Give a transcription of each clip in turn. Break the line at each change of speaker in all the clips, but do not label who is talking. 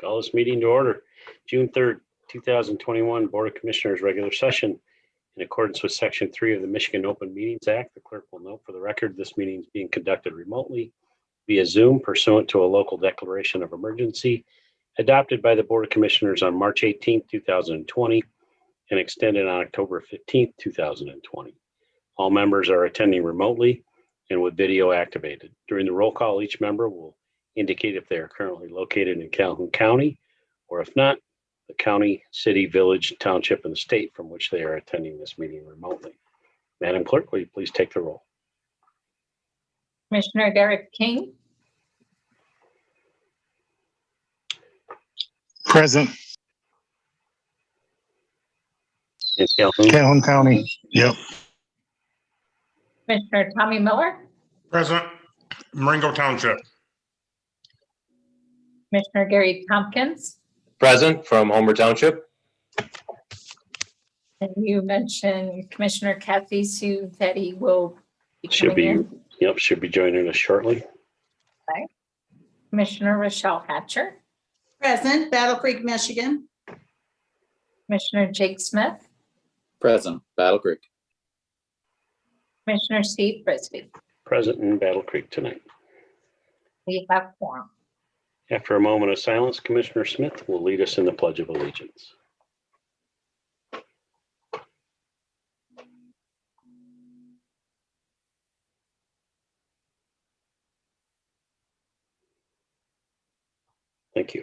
Call this meeting to order, June 3rd, 2021 Board of Commissioners Regular Session. In accordance with Section 3 of the Michigan Open Meetings Act, the clerk will note for the record, this meeting is being conducted remotely via Zoom pursuant to a local declaration of emergency adopted by the Board of Commissioners on March 18th, 2020 and extended on October 15th, 2020. All members are attending remotely and with video activated. During the roll call, each member will indicate if they are currently located in Calhoun County, or if not, the county, city, village, township, and state from which they are attending this meeting remotely. Madam Clerk, will you please take the roll?
Commissioner Derek King,
Present,
In Calhoun,
Calhoun County. Yep.
Commissioner Tommy Miller,
Present, Marengo Township.
Commissioner Gary Tompkins,
Present from Homer Township.
and you mentioned Commissioner Kathy Sue that he will be
Should
coming
be.
in.
yep, should be joining us shortly.
Commissioner Rochelle Hatcher,
Present, Battle Creek, Michigan.
Commissioner Jake Smith,
Present, Battle Creek.
Commissioner Steve Frisbee.
Present in Battle Creek tonight.
We have forum.
After a moment of silence, Commissioner Smith will lead us in the Pledge of Allegiance. Thank you.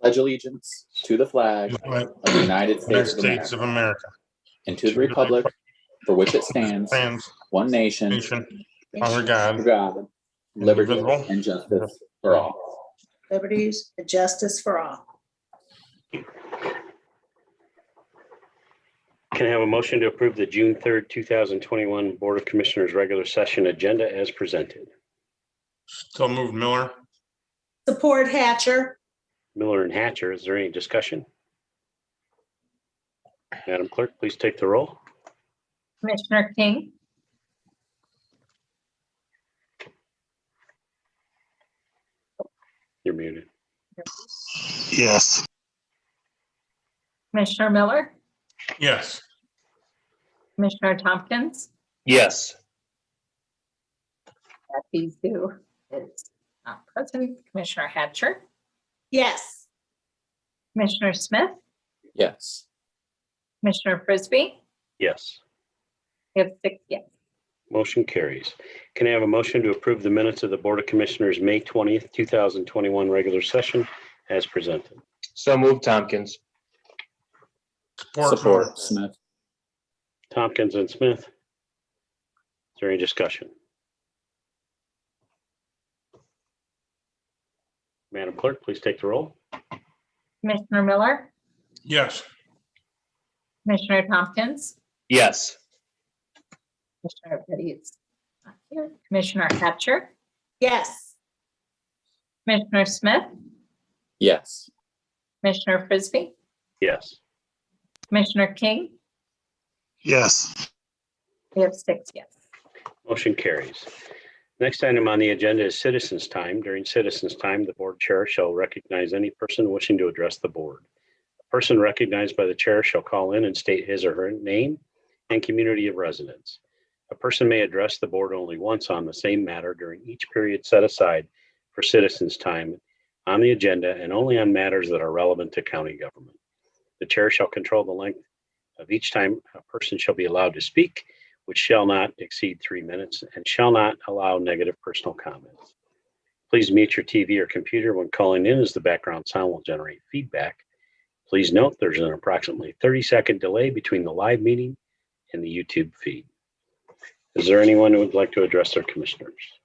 Pledge allegiance to the flag
United
of the United States of
States of
America
America.
and to the republic for which it stands,
Plans,
one nation,
nation, under God.
under God, liberty
indivisible,
and justice for all.
Liberties and justice for all.
Can I have a motion to approve the June 3rd, 2021 Board of Commissioners Regular Session Agenda as presented?
Still moved Miller.
Support Hatcher.
Miller and Hatcher, is there any discussion? Madam Clerk, please take the roll.
Commissioner King,
You're muted.
Yes.
Commissioner Miller,
Yes,
Commissioner Tompkins,
Yes.
Kathy Sue is not present, Commissioner Hatcher,
Yes.
Commissioner Smith,
Yes,
Commissioner Frisbee.
Yes,
We have six yes.
motion carries. Can I have a motion to approve the minutes of the Board of Commissioners, May 20th, 2021 regular session as presented?
So moved Tompkins.
support Miller.
support Smith.
Tompkins and Smith. Is there any discussion? Madam Clerk, please take the roll.
Commissioner Miller,
Yes,
Commissioner Tompkins,
Yes.
Commissioner Petty is not here. Commissioner Hatcher,
Yes.
Commissioner Smith,
Yes,
Commissioner Frisbee,
Yes,
Commissioner King.
Yes.
We have six yes.
motion carries. Next item on the agenda is citizens' time. During citizens' time, the board chair shall recognize any person wishing to address the board. A person recognized by the chair shall call in and state his or her name and community of residence. A person may address the board only once on the same matter during each period set aside for citizens' time on the agenda and only on matters that are relevant to county government. The chair shall control the length of each time a person shall be allowed to speak, which shall not exceed three minutes and shall not allow negative personal comments. Please mute your TV or computer when calling in as the background sound will generate feedback. Please note there's an approximately 30 second delay between the live meeting and the YouTube feed. Is there anyone who would like to address their commissioners?